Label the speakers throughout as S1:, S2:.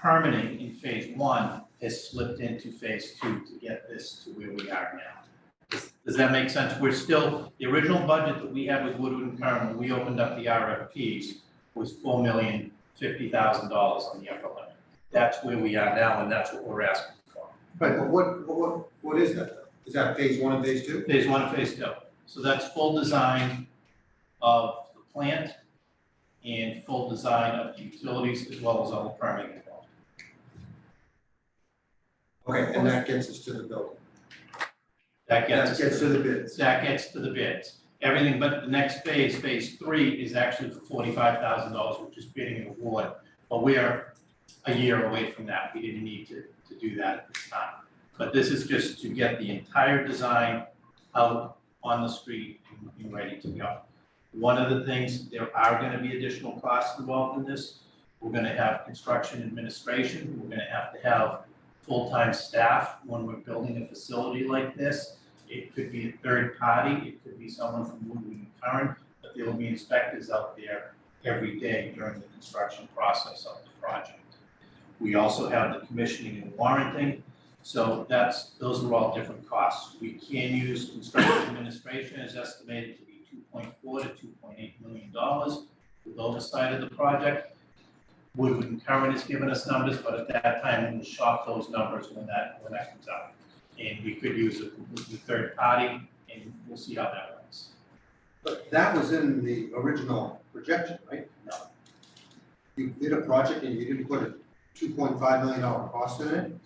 S1: permitting in phase one has slipped into phase two to get this to where we are now. Does- Does that make sense? We're still, the original budget that we had with Woodward and Curran, when we opened up the RFPs, was four million fifty thousand dollars on the upper limit. That's where we are now, and that's what we're asking for.
S2: Right, but what, what- what, what is that? though? Is that phase one and phase two?
S1: Phase one and phase two. So that's full design of the plant and full design of the utilities as well as all the permitting involved.
S2: Okay, and that gets us to the building.
S1: That gets us.
S2: That gets to the bids.
S1: That gets to the bids. Everything but the next phase, phase three, is actually for forty-five thousand dollars, which is bidding and award. But we are a year away from that. We didn't need to, to do that at this time. But this is just to get the entire design out on the street and- and ready to go. One of the things, there are gonna be additional costs involved in this. We're gonna have construction administration. We're gonna have to have full-time staff when we're building a facility like this. It could be a third party, it could be someone from Woodward and Curran, but there will be inspectors out there every day during the construction process of the project. We also have the commissioning and warranting, so that's, those are all different costs. We can use construction administration is estimated to be two point four to two point eight million dollars with oversight of the project. Woodward and Curran has given us numbers, but at that time, we'll shop those numbers when that, when that comes out and we could use a completely third party, and we'll see how that works.
S2: But that was in the original projection, right?
S1: No.
S2: You did a project and you didn't put a two point five million dollar cost in it?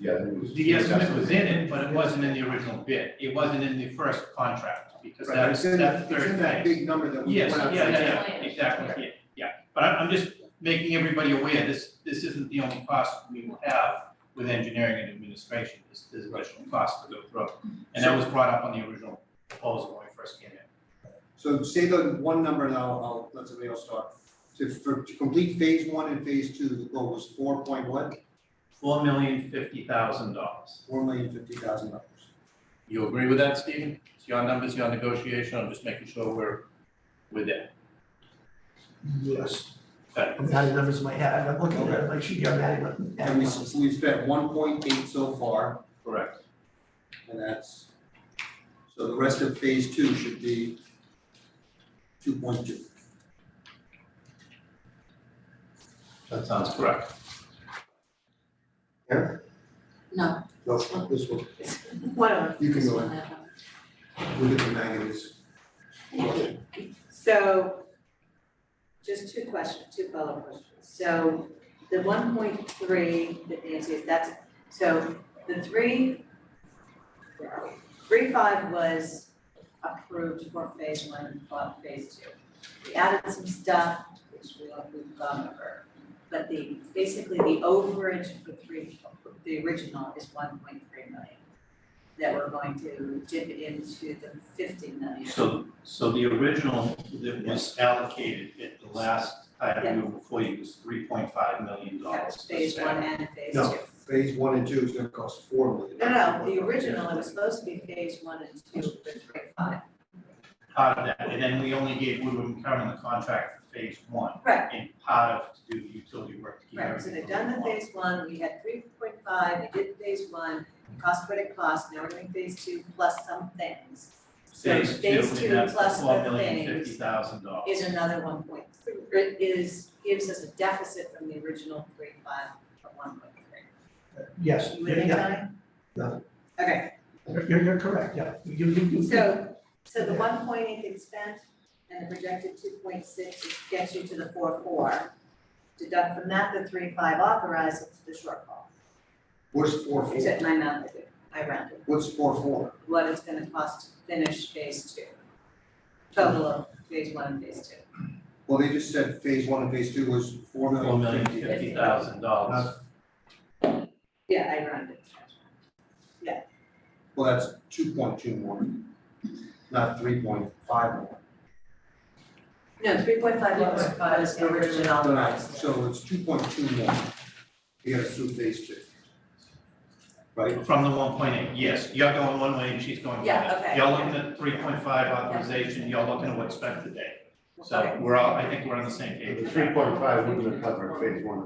S3: Yeah, it was.
S1: The estimate was in it, but it wasn't in the original bid, it wasn't in the first contract, because
S2: Right, but
S1: that's,
S2: it's in-
S1: that's
S2: It's in
S1: third
S2: that
S1: phase.
S2: big number that we
S1: Yes,
S2: went out
S1: yeah,
S2: to.
S1: yeah, yeah,
S4: Okay.
S1: exactly, yeah, yeah, but I'm, I'm just making everybody aware, this, this isn't the only cost we will have with engineering and administration, this, this additional cost to go through, and that was brought up on the original proposal when we first came in.
S2: So say the one number and I'll, I'll let somebody else talk. To, for, to complete phase one and phase two, the goal was four point what?
S1: Four million fifty thousand dollars.
S2: Four million fifty thousand dollars.
S1: You agree with that, Stephen? It's your numbers, your negotiation, I'm just making sure we're with it.
S5: Yes,
S1: Okay.
S5: I've got the numbers in my head, I'm looking at it, like she, I'm adding them.
S2: And we, s- we've spent one point eight so far.
S1: Correct.
S2: And that's, so the rest of phase two should be two point two.
S1: That sounds correct.
S4: No,
S2: No, not this one,
S6: Whatever.
S2: you can
S4: this
S2: go
S4: one,
S2: in,
S4: that one.
S2: look at the negatives.
S6: So just two questions, two follow-up questions. So the one point three that Nancy is, that's, so the three, where are we? Three five was approved for phase one and for phase two. We added some stuff, which we all we've gone over. But the, basically the overage for three, the original is one point three million that we're going to dip into the fifty million.
S1: So, so the original that was allocated at the last time you were before you was three point five million dollars.
S6: That's phase one and phase two.
S2: No. Phase one and two is gonna cost four million.
S6: No, no, the original, it was supposed to be phase one and two, but three, five.
S1: Part of that, and then we only gave Woodward and Curran the contract for phase one.
S6: Right.
S1: And part of to do the utility work to keep
S6: Right, so
S1: everything.
S6: they've done the
S1: going along.
S6: phase one, we had three point five, we did phase one, cost what it cost, now we're doing phase two plus some things. So phase
S1: Phase two,
S6: two
S1: and that's
S6: plus
S1: four
S6: the
S1: million fifty
S6: things
S1: thousand dollars.
S6: is another one point three, it is, gives us a deficit from the original three five of one point three.
S5: Yes,
S6: You with me,
S5: yeah,
S6: Tony?
S5: No.
S6: Okay,
S5: you're, you're- you're correct, yeah, you, you, you.
S6: so, so the one point eight is spent and the projected two point six gets you to the four four. Deduct from that the three five authorized, it's the shortfall.
S2: What's four four?
S6: Except my math, I did, oh I rounded,
S2: What's four four?
S6: what it's gonna cost to finish phase two. Total of phase one and phase two.
S2: Well, they just said phase one and phase two was four
S1: Four
S2: million
S1: million
S2: fifty.
S1: fifty thousand dollars.
S6: Yeah, I rounded.
S2: Well, that's two point two more, not three point five more.
S6: No, three point five was, was the original.
S2: No, no, so it's two point two more. You gotta sue phase two. Right?
S1: From the one point eight, yes, you're going one way and she's going the
S6: Yeah,
S1: other.
S6: okay.
S1: Y'all looking at three point five authorization, y'all looking at what's spent today. So
S6: Okay.
S1: we're all, I think we're on the same page.
S3: The three point five wouldn't have covered phase one